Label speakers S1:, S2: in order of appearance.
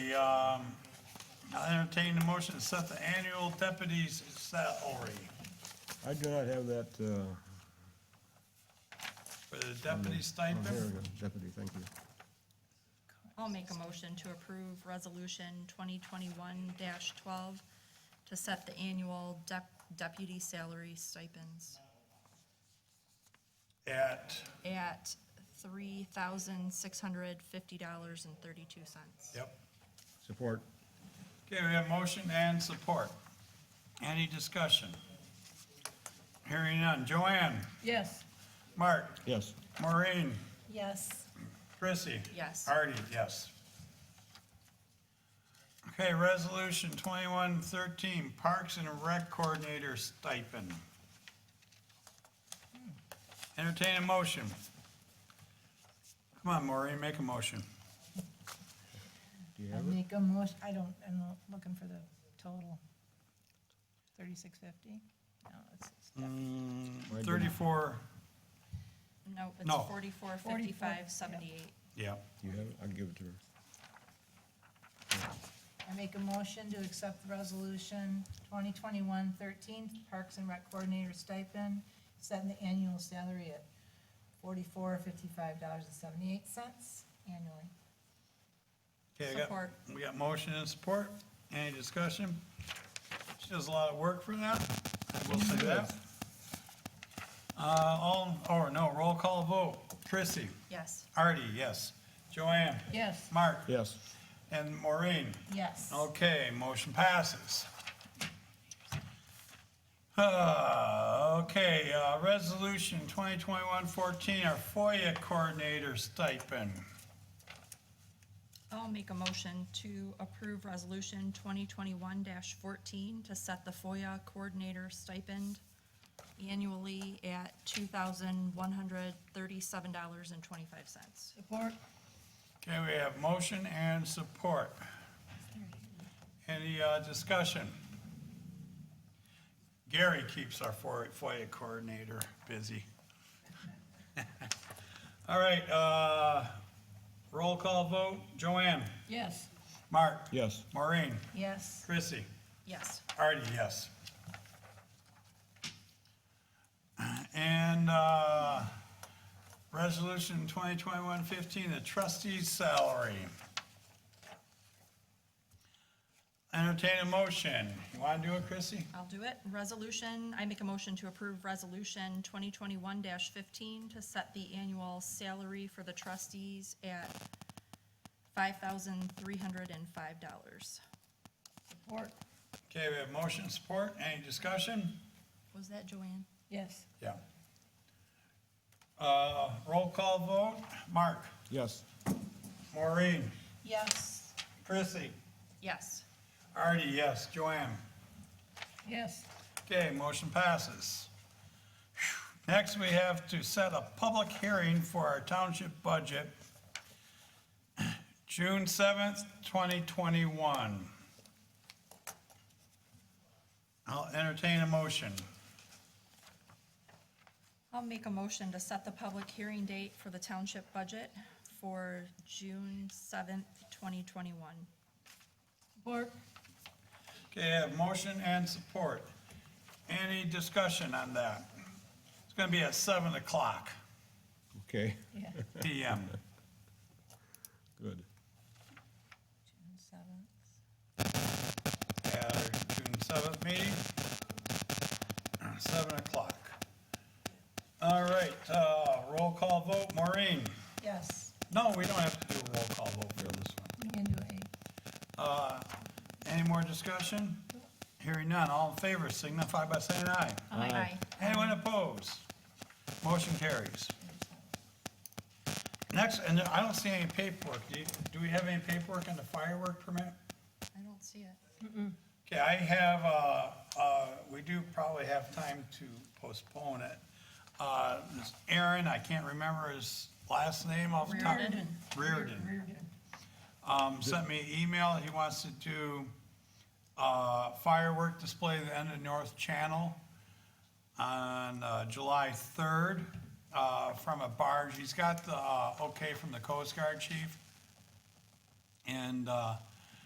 S1: Okay, um, I entertain the motion to set the annual deputy's salary
S2: I do not have that, uh,
S1: for the deputy
S2: oh, here we
S1: stipend.
S2: go, deputy, thank you.
S3: I'll make a motion to approve Resolution 2021-12 to set the annual dep- deputy salary stipends
S1: At,
S3: at $3,650.32.
S1: yep.
S2: Support.
S1: Okay, we have motion and support. Any discussion? Hearing none. Joanne,
S4: Yes.
S1: Mark,
S2: Yes.
S1: Maureen,
S4: Yes.
S1: Chrissy.
S3: Yes.
S1: Artie, yes. Okay, resolution twenty-one thirteen, Parks and Rec Coordinator stipend. Entertain a motion. Come on, Maureen, make a motion.
S2: Do you
S4: I
S2: have it?
S4: make a motion, I don't, I'm not looking for the total. Thirty-six fifty? No, it's
S2: I didn't.
S1: Thirty-four,
S3: Nope, it's
S1: No.
S3: 44,
S4: yeah.
S3: 55, 78.
S1: yeah.
S2: Do you have it? I'll give it to her.
S4: I make a motion to accept the resolution 2021-13 Parks and Rec Coordinator stipend, setting the annual salary at forty-four fifty-five dollars and seventy-eight cents annually.
S1: Okay, I got-
S3: Support.
S1: We got motion and support. Any discussion? She does a lot of work for that. I will say that. Uh, all, or no, roll call vote. Chrissy,
S3: Yes.
S1: Artie, yes. Joanne?
S4: Yes.
S1: Mark?
S2: Yes.
S1: And Maureen?
S4: Yes.
S1: Okay, motion passes. Uh, okay, uh, resolution 2021-14, our FOIA coordinator stipend.
S3: I'll make a motion to approve Resolution 2021-14 to set the FOIA coordinator stipend annually at $2,137.25.
S4: Support?
S1: Okay, we have motion and support. Any uh, discussion? Gary keeps our FOIA FOIA coordinator busy. All right, uh, roll call vote. Joanne?
S4: Yes.
S1: Mark?
S2: Yes.
S1: Maureen?
S4: Yes.
S1: Chrissy?
S3: Yes.
S1: Artie, yes. And uh, Resolution 2021-15, the trustee's salary. Entertain a motion. You want to do it, Chrissy?
S3: I'll do it. Resolution, I make a motion to approve Resolution 2021-15 to set the annual salary for the trustees at $5,305.
S4: Support?
S1: Okay, we have motion support. Any discussion?
S3: Was that Joanne?
S4: Yes.
S1: Yeah. Uh, Roll call vote. Mark?
S2: Yes.
S1: Maureen?
S4: Yes.
S1: Chrissy?
S3: Yes.
S1: Artie, yes. Joanne?
S4: Yes.
S1: Okay, motion passes. Next, we have to set a public hearing for our township budget, June seventh, twenty twenty-one. I'll entertain a motion.
S3: I'll make a motion to set the public hearing date for the township budget for June seventh, twenty twenty-one.
S4: Support?
S1: Okay, I have motion and support. Any discussion on that? It's gonna be at seven o'clock
S2: Okay,
S4: Yeah.
S1: PM.
S2: good.
S4: June seventh.
S1: at our June seventh meeting, seven o'clock. All right, uh, roll call vote, Maureen?
S4: Yes.
S1: No, we don't have to do a roll call vote for this one.
S4: We can do A.
S1: Any more discussion? Hearing none, all in favor signify by saying aye.
S3: Aye.
S1: Anyone opposed? Motion carries. Next, and I don't see any paperwork, do, you- do we have any paperwork on the firework permit?
S3: I don't see it.
S1: Okay, I have, uh, uh, we do probably have time to postpone it. Uh, this Aaron, I can't remember his last name off the top.
S3: Reardon.
S1: Reardon, um, sent me an email, he wants to do, uh, firework display at the end of North Channel on, uh, July third, uh, from a barge. He's got the, uh, okay from the Coast Guard chief. And, uh,